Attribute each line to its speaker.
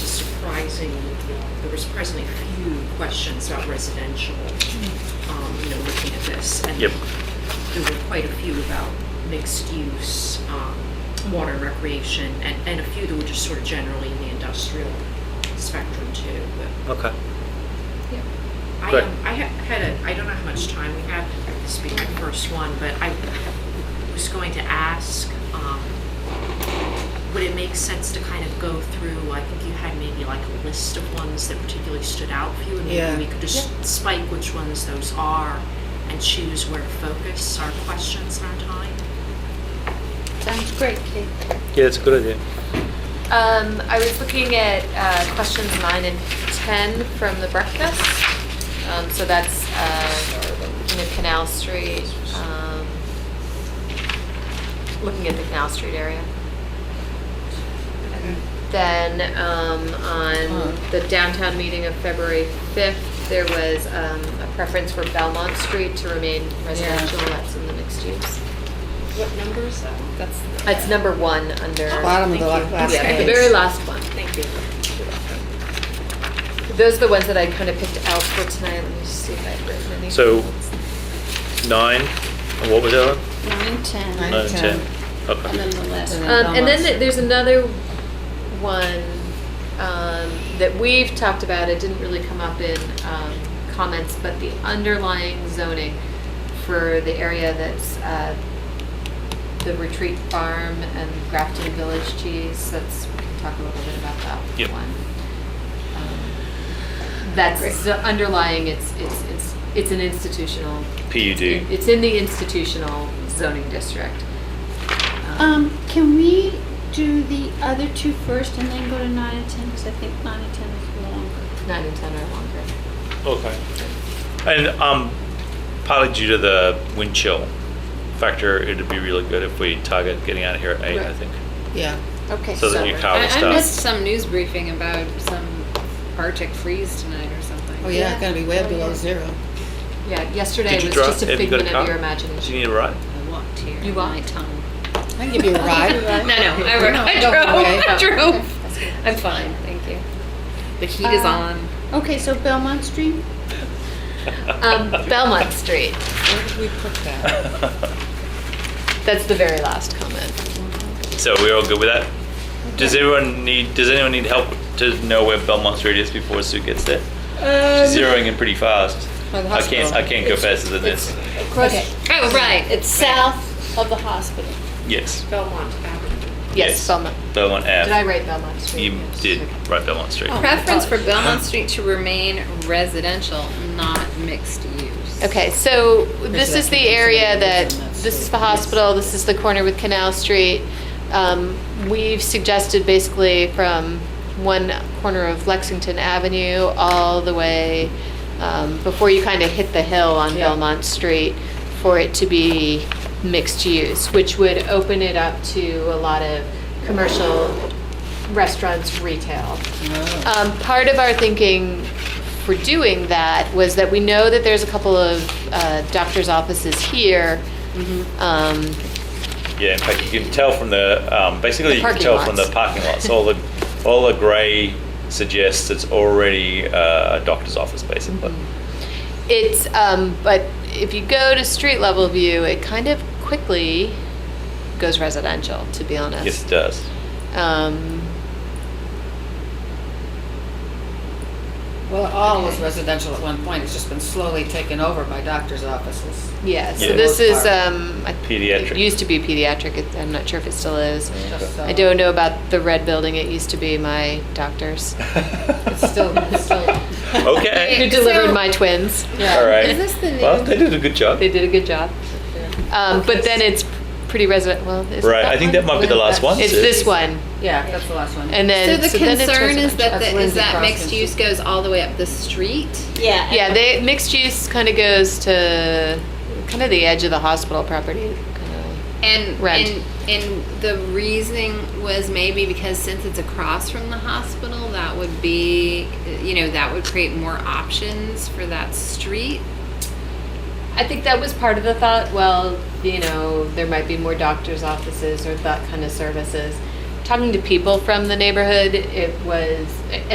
Speaker 1: raising, there was surprisingly few questions about residential, um, you know, looking at this. and
Speaker 2: Yep.
Speaker 1: There were quite a few about mixed use, um, water and recreation, and, and a few that were just sort of generally in the industrial spectrum too, but
Speaker 2: Okay.
Speaker 1: I,
Speaker 2: Good.
Speaker 1: um, I ha- had a, I don't know how much time we have, this will be my first one, but I was going to ask, um, would it make sense to kind of go through, I think you had maybe like a list of ones that particularly stood out for you, and
Speaker 3: Yeah.
Speaker 1: maybe we could just spike which ones those are and choose where to focus our questions and our time?
Speaker 4: Sounds great, Kate.
Speaker 2: Yeah, that's a good idea.
Speaker 4: Um, I was looking at uh, questions nine and 10 from the breakfast. Um, so that's, uh, you know, Canal Street, um, looking at the Canal Street area. And Then um, on the downtown meeting of February 5th, there was um, a preference for Belmont Street to remain residential. That's in the mixed use.
Speaker 1: What number is that one?
Speaker 4: That's, that's number one under.
Speaker 3: Bottom of the
Speaker 1: Thank you.
Speaker 3: last
Speaker 4: Yeah, the
Speaker 3: page.
Speaker 4: very last one.
Speaker 1: Thank you.
Speaker 4: Those are the ones that I kind of picked out for tonight. Let me just see if I've written any.
Speaker 2: So- Nine, and what was the other? one?
Speaker 5: Nine, ten,
Speaker 3: Nine,
Speaker 5: and
Speaker 2: Nine,
Speaker 3: ten.
Speaker 2: ten. Okay.
Speaker 5: then the last
Speaker 3: And
Speaker 5: one.
Speaker 4: Um, and then th- there's another one, um, that we've talked about. It didn't really come up in, um, comments, but the underlying zoning for the area that's, uh, the retreat farm and Grafton Village cheese. That's, we can talk a little bit about that
Speaker 2: Yep.
Speaker 4: one. Um, That's the underlying, it's, it's, it's, it's an institutional
Speaker 2: PUD.
Speaker 4: It's in the institutional zoning district.
Speaker 5: Um, can we do the other two first and then go to nine and ten, because I think nine and ten is longer.
Speaker 4: Nine and 10 are longer.
Speaker 2: Okay. And um, partly due to the wind chill factor, it'd be really good if we target getting out of here at eight, I
Speaker 4: Right.
Speaker 2: think.
Speaker 3: Yeah.
Speaker 6: Okay,
Speaker 2: So that
Speaker 6: so
Speaker 2: your car
Speaker 6: I
Speaker 2: will
Speaker 6: I missed
Speaker 2: stop.
Speaker 6: some news briefing about some Arctic freeze tonight or something.
Speaker 3: Oh, yeah, it's gonna be way below zero.
Speaker 4: Yeah, yesterday
Speaker 2: Did you
Speaker 4: was
Speaker 2: drive-
Speaker 4: just a
Speaker 2: have you got
Speaker 4: figment of
Speaker 2: car?
Speaker 4: your
Speaker 2: Do
Speaker 4: imagination.
Speaker 2: you need a ride?
Speaker 6: I walked here.
Speaker 4: You walked?
Speaker 6: My tongue.
Speaker 3: I can give you a ride.
Speaker 6: No, no, I ro- I
Speaker 3: No,
Speaker 6: drove,
Speaker 3: okay.
Speaker 6: I drove. I'm fine, thank you. The heat is
Speaker 5: Uh,
Speaker 6: on.
Speaker 5: Okay, so Belmont Street,
Speaker 4: Um, Belmont Street,
Speaker 3: Where did we put that?
Speaker 4: that's the very last comment.
Speaker 2: So we're all good with that? Does everyone need, does anyone need help to know where Belmont Street is before Sue gets there? She's zeroing in pretty fast.
Speaker 3: By the
Speaker 2: I can't,
Speaker 3: hospital.
Speaker 2: I can't go faster than this.
Speaker 5: Okay.
Speaker 6: Oh, right,
Speaker 5: it's south of the hospital.
Speaker 2: Yes,
Speaker 1: Belmont Avenue.
Speaker 2: Yes.
Speaker 4: Yes, Belmont.
Speaker 2: Belmont Ave.
Speaker 4: Did I write Belmont Street?
Speaker 2: You
Speaker 4: Yes.
Speaker 2: did
Speaker 4: Okay. Oh.
Speaker 2: write Belmont Street.
Speaker 6: Preference
Speaker 3: Uh-huh.
Speaker 6: for Belmont Street to remain residential, not mixed use.
Speaker 4: Okay, so this is the area
Speaker 3: Residential
Speaker 4: that,
Speaker 3: is in that
Speaker 4: this is
Speaker 3: street.
Speaker 4: the hospital, this is the corner with Canal Street. Um, We've suggested basically from one corner of Lexington Avenue all the way, um, before you kind of hit the hill on
Speaker 3: Yeah.
Speaker 4: Belmont Street, for it to be mixed use, which would open it up to a lot of commercial restaurants, retail.
Speaker 3: Oh.
Speaker 4: Um, part of our thinking for doing that was that we know that there's a couple of uh, doctor's offices here.
Speaker 3: Mm-hmm.
Speaker 4: Um,
Speaker 2: Yeah, in fact, you can tell from the, um, basically
Speaker 4: The
Speaker 2: you can
Speaker 4: parking
Speaker 2: tell from the
Speaker 4: lots.
Speaker 2: parking lots. All the, all the grey suggests it's already uh, a doctor's office, basically.
Speaker 4: It's, um, but if you go to street level view, it kind of quickly goes residential, to be honest.
Speaker 2: Yes, it does.
Speaker 4: Um,
Speaker 3: Well, it all was residential at one point, it's just been slowly taken over by doctor's offices.
Speaker 4: yeah, so
Speaker 2: Yeah.
Speaker 4: this is,
Speaker 3: Most part.
Speaker 4: um, I-
Speaker 2: Pediatric.
Speaker 4: It used to be pediatric, it- I'm not sure if it still is.
Speaker 3: Just so-
Speaker 4: I don't know about the red building, it used to be my doctor's,
Speaker 3: It's still, it's still,
Speaker 2: Okay,
Speaker 4: who delivered my twins.
Speaker 3: yeah.
Speaker 2: all right.
Speaker 6: Is this the
Speaker 2: Well, they
Speaker 6: new?
Speaker 2: did a good job.
Speaker 4: They did a good job. Um, but then it's pretty resident, well, is it
Speaker 2: Right, I think that might be the last one.
Speaker 4: It's
Speaker 2: Sue.
Speaker 4: this one,
Speaker 3: Yeah, that's the last one.
Speaker 4: and
Speaker 6: So
Speaker 4: then.
Speaker 6: the
Speaker 4: then it's
Speaker 6: concern is that,
Speaker 3: That's
Speaker 6: the- is
Speaker 3: Lindsay
Speaker 6: that
Speaker 3: Crosby.
Speaker 6: mixed use goes all the way up the street?
Speaker 5: Yeah.
Speaker 4: Yeah, they, mixed use kind of goes to kind of the edge of the hospital property. kinda.
Speaker 6: And,
Speaker 4: Rent.
Speaker 6: and and the reasoning was maybe because since it's across from the hospital, that would be, you know, that would create more options for that street.
Speaker 4: I think that was part of the thought, well, you know, there might be more doctor's offices or that kind of services. Talking to people from the neighborhood, it was,